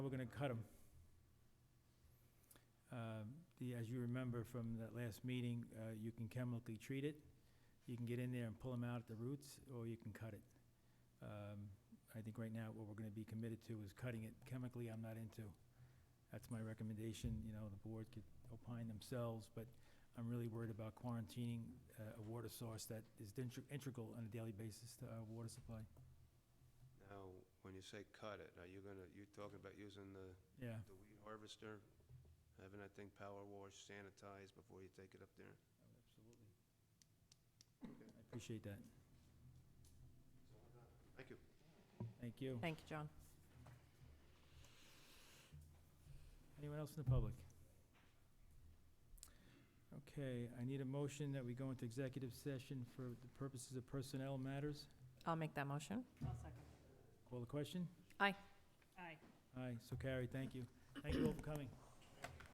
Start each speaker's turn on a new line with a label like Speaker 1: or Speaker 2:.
Speaker 1: Cudham. Um, The, as you remember from that last meeting, uh, you can chemically treat it. You can get in there and pull them out at the roots, or you can cut it. Um, I think right now what we're gonna be committed to is cutting it. Chemically, I'm not into. That's my recommendation, you know, the board could opine themselves, but I'm really worried about quarantining uh, a water source that is integ- integral on a daily basis to our water supply.
Speaker 2: Now, when you say cut it, are you gonna, you talking about using the,
Speaker 1: Yeah.
Speaker 2: the weed harvester? Having that thing power washed, sanitized before you take it up there?
Speaker 1: Absolutely. I appreciate that.
Speaker 2: Thank you.
Speaker 1: Thank you.
Speaker 3: Thank you, John.
Speaker 1: Anyone else in the public? Okay, I need a motion that we go into executive session for the purposes of personnel matters.
Speaker 3: I'll make that motion.
Speaker 1: Call the question?
Speaker 3: Aye.
Speaker 1: Aye, so carried, thank you. Thank you all for coming.